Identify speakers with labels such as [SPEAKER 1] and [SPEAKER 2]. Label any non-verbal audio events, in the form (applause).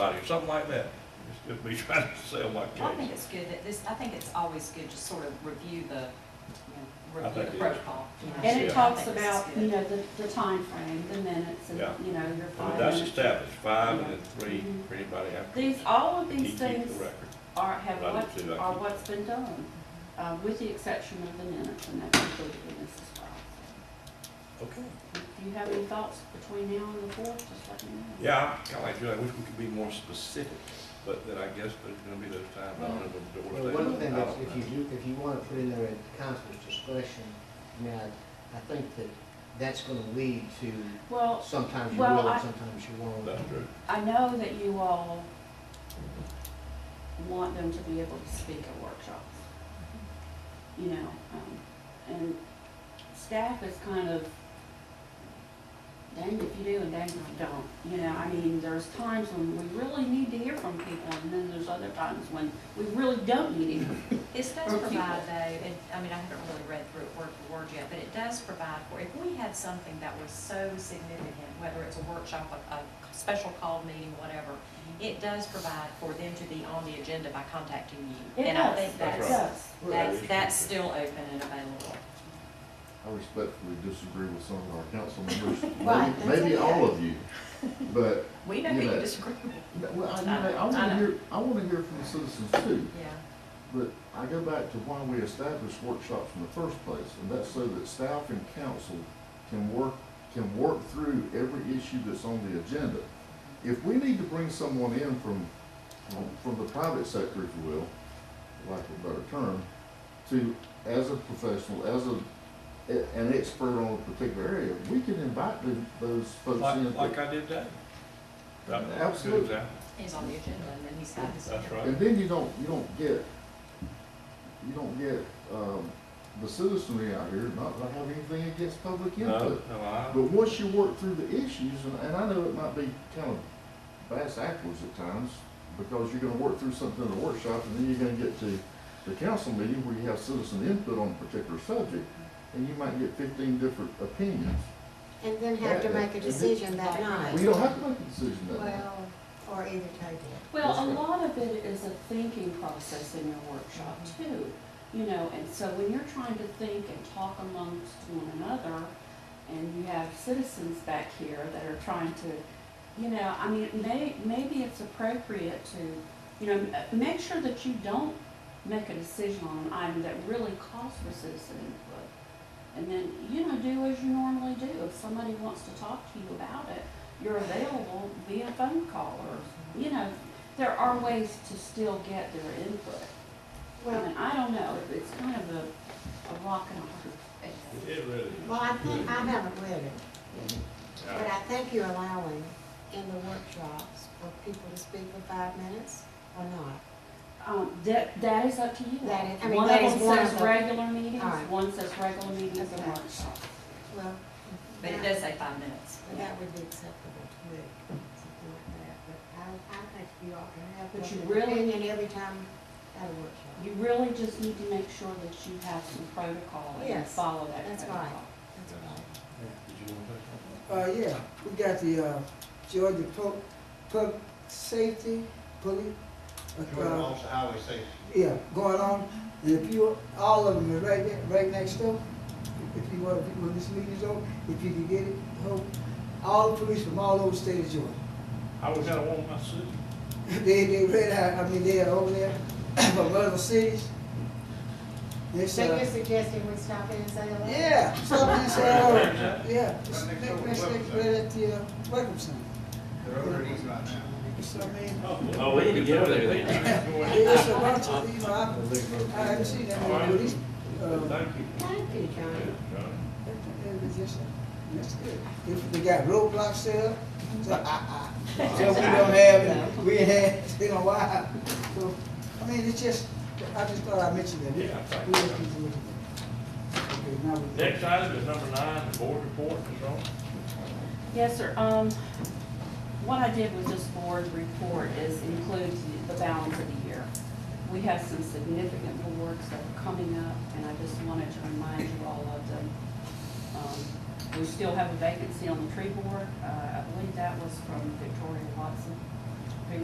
[SPEAKER 1] somebody, or something like that. It's just me (laughs) trying to sell my
[SPEAKER 2] I think
[SPEAKER 1] case.
[SPEAKER 2] it's good that this, I think it's always good to sort of review the, you know,
[SPEAKER 1] I
[SPEAKER 2] review the
[SPEAKER 1] think it is.
[SPEAKER 2] protocol. you know.
[SPEAKER 3] And it
[SPEAKER 1] Yeah.
[SPEAKER 3] talks
[SPEAKER 2] I think this is
[SPEAKER 3] about,
[SPEAKER 2] good.
[SPEAKER 3] you know, the, the frame, the minutes, and,
[SPEAKER 1] Yeah.
[SPEAKER 3] you know, your
[SPEAKER 1] But
[SPEAKER 3] five
[SPEAKER 1] That's
[SPEAKER 3] minutes.
[SPEAKER 1] established, five and then three
[SPEAKER 4] Mm-hmm.
[SPEAKER 1] for anybody after.
[SPEAKER 3] These, all of
[SPEAKER 1] He
[SPEAKER 3] these
[SPEAKER 1] keeps the
[SPEAKER 3] things
[SPEAKER 1] record.
[SPEAKER 3] are, have
[SPEAKER 1] Right,
[SPEAKER 3] what,
[SPEAKER 1] it's exactly.
[SPEAKER 3] are what's been done, uh, with the exception of the minutes, and that's included in this as well.
[SPEAKER 1] Okay.
[SPEAKER 3] If you have any thoughts between now and the fourth, just let me know.
[SPEAKER 1] Yeah, I kinda like you, I wish we could be more specific, but then I guess there's gonna be those times, I don't know, when the doors.
[SPEAKER 5] Well, one
[SPEAKER 1] they-
[SPEAKER 5] thing
[SPEAKER 1] I
[SPEAKER 5] is,
[SPEAKER 1] don't
[SPEAKER 5] if
[SPEAKER 1] know.
[SPEAKER 5] you do, if you wanna put in there at council's discretion, I mean, I, I think that that's gonna lead to
[SPEAKER 3] Well,
[SPEAKER 5] sometimes you
[SPEAKER 3] Well,
[SPEAKER 5] will,
[SPEAKER 3] I-
[SPEAKER 5] and sometimes you won't.
[SPEAKER 1] That's true.
[SPEAKER 3] I know that you all want them to be able to speak at workshops. You know, um, and staff is kind of dang if you do and dang if you don't. You know, I mean, there's times when we really need to hear from people, and then there's other times when we really don't need to. hear.
[SPEAKER 2] This does
[SPEAKER 3] Or
[SPEAKER 2] provide though, and, I mean, I haven't really read through it word for word yet, but it does provide for, if we had something that was so significant, whether it's a workshop, a, a special call meeting, whatever, it does provide for them to be on the agenda by contacting you.
[SPEAKER 3] It
[SPEAKER 2] And I
[SPEAKER 3] does,
[SPEAKER 2] think
[SPEAKER 3] it
[SPEAKER 1] That's
[SPEAKER 2] that's,
[SPEAKER 1] right.
[SPEAKER 3] does.
[SPEAKER 2] that's, that's still open and available.
[SPEAKER 6] I respectfully disagree with some of our
[SPEAKER 2] (laughs)
[SPEAKER 6] council members,
[SPEAKER 3] Right,
[SPEAKER 6] maybe,
[SPEAKER 3] that's okay.
[SPEAKER 6] maybe all of you. But,
[SPEAKER 2] We know who you
[SPEAKER 6] Yeah.
[SPEAKER 2] disagree with.
[SPEAKER 6] well, I, you
[SPEAKER 2] I know,
[SPEAKER 6] know, I
[SPEAKER 2] I know.
[SPEAKER 6] wanna hear, I wanna hear from the citizens too.
[SPEAKER 2] Yeah.
[SPEAKER 6] But I go back to why we established workshops in the first place, and that's so that staff and council can work, can work through every issue that's on the agenda. If we need to bring someone in from, from the private sector, if you will, lack of a better term, to, as a professional, as a, an expert on a particular area, we can invite the- those folks in.
[SPEAKER 1] Like, like I did that. That's a good
[SPEAKER 6] Absolutely.
[SPEAKER 1] example.
[SPEAKER 2] He's on the agenda and then he's got his.
[SPEAKER 1] That's right.
[SPEAKER 6] And then you don't, you don't get, you don't get, um, the citizenry out here not to have anything against public
[SPEAKER 1] No,
[SPEAKER 6] input.
[SPEAKER 1] no, I,
[SPEAKER 6] But once you work through the issues, and, and I know it might be kind of bass backwards at times, because you're gonna work through something in a workshop, and then you're gonna get to the council meeting where you have citizen input on a particular subject, and you might get fifteen different opinions.
[SPEAKER 4] And then have to
[SPEAKER 6] Yeah,
[SPEAKER 4] make a
[SPEAKER 6] and-
[SPEAKER 4] decision that
[SPEAKER 6] Well, you
[SPEAKER 4] night.
[SPEAKER 6] don't have to make a decision that night.
[SPEAKER 4] Well, or either type it.
[SPEAKER 3] Well, a
[SPEAKER 6] That's right.
[SPEAKER 3] lot of it is a thinking process in your workshop too, you know, and so when you're trying to think and talk amongst one another, and you have citizens back here that are trying to, you know, I mean, may, maybe it's appropriate to, you know, m- uh, make sure that you don't make a decision on an item that really calls for citizen input. And then, you know, do as you normally do, if somebody wants to talk to you about it, you're available via phone call or, you know, there are ways to still get their input. I
[SPEAKER 4] Well,
[SPEAKER 3] mean, I don't know, it's kind of a, a rock and a hard place.
[SPEAKER 1] it really is.
[SPEAKER 4] well, I think, I haven't read it,
[SPEAKER 1] Yeah.
[SPEAKER 4] but I think you're allowing in the workshops for people to speak for five minutes or not.
[SPEAKER 3] Um, that, that is up to you.
[SPEAKER 4] That is- I mean,
[SPEAKER 3] One
[SPEAKER 4] that
[SPEAKER 3] of
[SPEAKER 4] is
[SPEAKER 3] them
[SPEAKER 4] one
[SPEAKER 3] says
[SPEAKER 4] of the-
[SPEAKER 3] regular meetings,
[SPEAKER 4] All right.
[SPEAKER 3] one says regular meetings and
[SPEAKER 4] Okay.
[SPEAKER 3] workshops.
[SPEAKER 4] Well,
[SPEAKER 2] But it does say five minutes.
[SPEAKER 4] that would be acceptable to me, something like that, but I, I think you ought to have.
[SPEAKER 3] But
[SPEAKER 4] an
[SPEAKER 3] you really-
[SPEAKER 4] Opinion every time at a workshop.
[SPEAKER 3] You really just need to make sure that you have some protocol and you
[SPEAKER 4] Yes,
[SPEAKER 3] follow that
[SPEAKER 4] that's
[SPEAKER 3] protocol.
[SPEAKER 4] right. That's right.
[SPEAKER 1] Did you want to say something?
[SPEAKER 7] Uh, yeah, we got the, uh, Georgia Pub, Pub Safety, Police. uh,
[SPEAKER 5] highway safety.
[SPEAKER 7] Yeah, going on, and if you, all of them are right there, right next door. If you want, if you- when this meeting's over, if you can get it, hope, all the police from all over the state of Georgia.
[SPEAKER 1] I always had a woman, my sister.
[SPEAKER 7] They, they red, I, I mean, they are over there (clears throat) from other cities. This,
[SPEAKER 4] So you're
[SPEAKER 7] uh,
[SPEAKER 4] suggesting we stop in and say hello?
[SPEAKER 7] yeah, so,
[SPEAKER 1] Right next
[SPEAKER 7] so, yeah. It's
[SPEAKER 8] Right next
[SPEAKER 7] right-
[SPEAKER 8] door to Welcome
[SPEAKER 7] right- Right at the, uh, welcome center.
[SPEAKER 8] They're over at East right now.
[SPEAKER 7] So, I mean,
[SPEAKER 1] Oh, we need to get over there then.
[SPEAKER 7] It's a bunch of, you know, I, I haven't seen that, many, but it's, uh,
[SPEAKER 1] Thank you.
[SPEAKER 4] Thank you, John.
[SPEAKER 1] John.
[SPEAKER 7] it was just, that's good. If They got roadblocks set up, so, ah,
[SPEAKER 1] (laughs)
[SPEAKER 7] ah, so we don't have, we ain't had, it's been a while. So, I mean, it's just, I just thought I'd mention that.
[SPEAKER 1] Yeah, thank you.
[SPEAKER 7] We have people looking at it. Okay, now we-
[SPEAKER 1] Next item is number nine, the board report, Ms. Ross.
[SPEAKER 3] Yes, sir. Um, what I did with this board report is include the balance of the year. We have some significant awards that are coming up, and I just wanted to remind you all of them. Um, We still have a vacancy on the tree board. Uh, I believe that was from Victoria Watson.